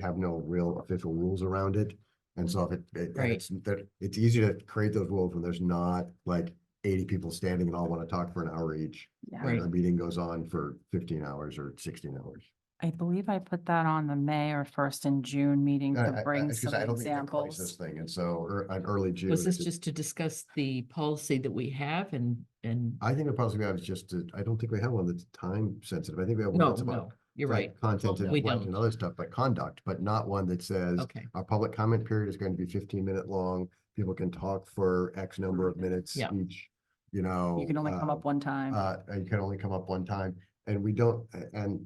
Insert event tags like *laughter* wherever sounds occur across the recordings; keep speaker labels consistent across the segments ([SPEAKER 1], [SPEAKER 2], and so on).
[SPEAKER 1] have no real official rules around it. And so if it, it- and
[SPEAKER 2] Right.
[SPEAKER 1] it's, that- it's easier to create those rules when there's not like eighty people standing and all want to talk for an hour each.
[SPEAKER 3] Yeah,
[SPEAKER 1] And
[SPEAKER 2] Right.
[SPEAKER 1] a meeting goes on for fifteen hours or sixteen hours.
[SPEAKER 3] I believe I put that on the May or first in June meeting
[SPEAKER 1] I-
[SPEAKER 3] to
[SPEAKER 1] I- I-
[SPEAKER 3] bring
[SPEAKER 1] 'cause
[SPEAKER 3] some
[SPEAKER 1] I don't think they're close This
[SPEAKER 3] examples.
[SPEAKER 1] thing, and so, or an early June.
[SPEAKER 2] Was this
[SPEAKER 1] it's-
[SPEAKER 2] just to discuss the policy that we have and, and,
[SPEAKER 1] I think the possibility we have is just, to- I don't think we have one that's time sensitive. I think we have one
[SPEAKER 2] no,
[SPEAKER 1] that's about.
[SPEAKER 2] no, you're
[SPEAKER 1] like,
[SPEAKER 2] right.
[SPEAKER 1] Content
[SPEAKER 2] Well,
[SPEAKER 1] and
[SPEAKER 2] we
[SPEAKER 1] flight
[SPEAKER 2] don't.
[SPEAKER 1] and other stuff, but conduct, but not one that says
[SPEAKER 2] Okay,
[SPEAKER 1] our public comment period is going to be fifteen minute long. People can talk for X number of minutes
[SPEAKER 2] Yeah.
[SPEAKER 1] each, you know.
[SPEAKER 3] Mm-hmm. You can only come
[SPEAKER 1] uh,
[SPEAKER 3] up one time.
[SPEAKER 1] Uh, and you can only come up one time, and we don't, a- and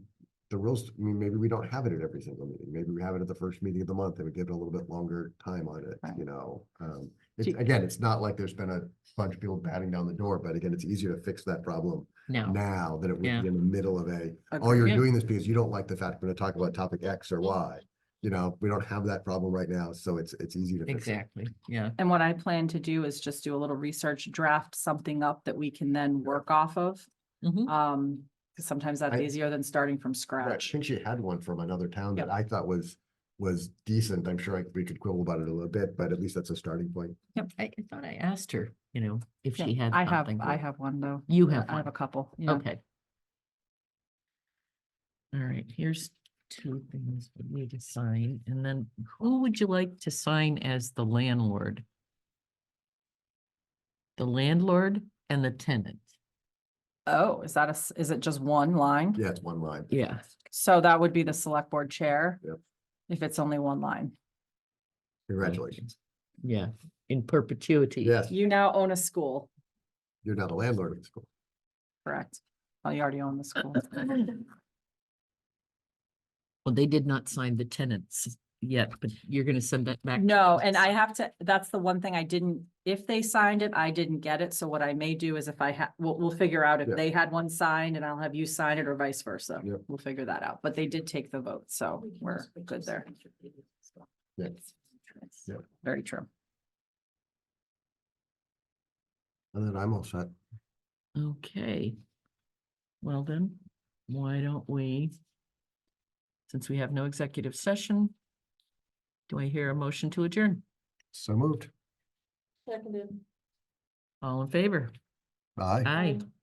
[SPEAKER 1] the rules, I mean, maybe we don't have it at every single meeting, maybe we have it at the first meeting of the month, and we give it a little bit longer time on it,
[SPEAKER 3] Right.
[SPEAKER 1] you know? Um, it's,
[SPEAKER 2] Do-
[SPEAKER 1] again, it's not like there's been a bunch of people batting down the door, but again, it's easier to fix that problem
[SPEAKER 2] now,
[SPEAKER 1] now than it would be
[SPEAKER 2] Yeah.
[SPEAKER 1] in the middle of a, oh, you're
[SPEAKER 2] Yeah.
[SPEAKER 1] doing this because you don't like the fact we're gonna talk about topic X or Y. You know, we don't have that problem right now, so it's, it's easy to fix. it.
[SPEAKER 2] exactly, yeah,
[SPEAKER 3] And what I plan to do is just do a little research, draft something up that we can then work off of.
[SPEAKER 2] Mhm.
[SPEAKER 3] Um, 'cause sometimes that's
[SPEAKER 1] I-
[SPEAKER 3] easier than starting from
[SPEAKER 1] Right, I
[SPEAKER 3] scratch.
[SPEAKER 1] think she had one from another town that I thought was, was decent. I'm sure I- we could quibble about it a little bit, but at least that's a starting point.
[SPEAKER 2] I, I thought I asked her, you know, if she
[SPEAKER 3] Yeah,
[SPEAKER 2] had.
[SPEAKER 3] I have,
[SPEAKER 2] something
[SPEAKER 3] I
[SPEAKER 2] that-
[SPEAKER 3] have one though.
[SPEAKER 2] You
[SPEAKER 3] I
[SPEAKER 2] have
[SPEAKER 3] I have a
[SPEAKER 2] one.
[SPEAKER 3] couple. yeah.
[SPEAKER 2] Okay. All right, here's two things we need to sign, and then who would you like to sign as the landlord? The landlord and the tenant.
[SPEAKER 3] Oh, is that a, s- is it just one line?
[SPEAKER 1] Yeah, it's one line.
[SPEAKER 2] Yeah.
[SPEAKER 3] So that would be the select board chair.
[SPEAKER 1] Yep.
[SPEAKER 3] If it's only one line.
[SPEAKER 1] Congratulations.
[SPEAKER 2] Yeah, in perpetuity.
[SPEAKER 1] Yes,
[SPEAKER 3] You now own a school,
[SPEAKER 1] you're not a landlord of the school.
[SPEAKER 3] correct? Oh, you already own the
[SPEAKER 2] *laughs*
[SPEAKER 3] school.
[SPEAKER 2] Well, they did not sign the tenants yet, but you're gonna send that back. to
[SPEAKER 3] No, and
[SPEAKER 2] us.
[SPEAKER 3] I have to, that's the one thing I didn't, if they signed it, I didn't get it. So what I may do is if I have, we'll, we'll figure out
[SPEAKER 1] Yeah.
[SPEAKER 3] if they had one signed and I'll have you sign it or vice versa.
[SPEAKER 1] Yep.
[SPEAKER 3] We'll figure that out. But they did take the vote, so we're good there.
[SPEAKER 1] Yeah. Yeah.
[SPEAKER 3] Very true.
[SPEAKER 1] And then I'm all set.
[SPEAKER 2] Okay. Well then, why don't we? Since we have no executive session. Do I hear a motion to adjourn?
[SPEAKER 1] So moved.
[SPEAKER 2] All in favor?
[SPEAKER 1] Bye.
[SPEAKER 2] Aye.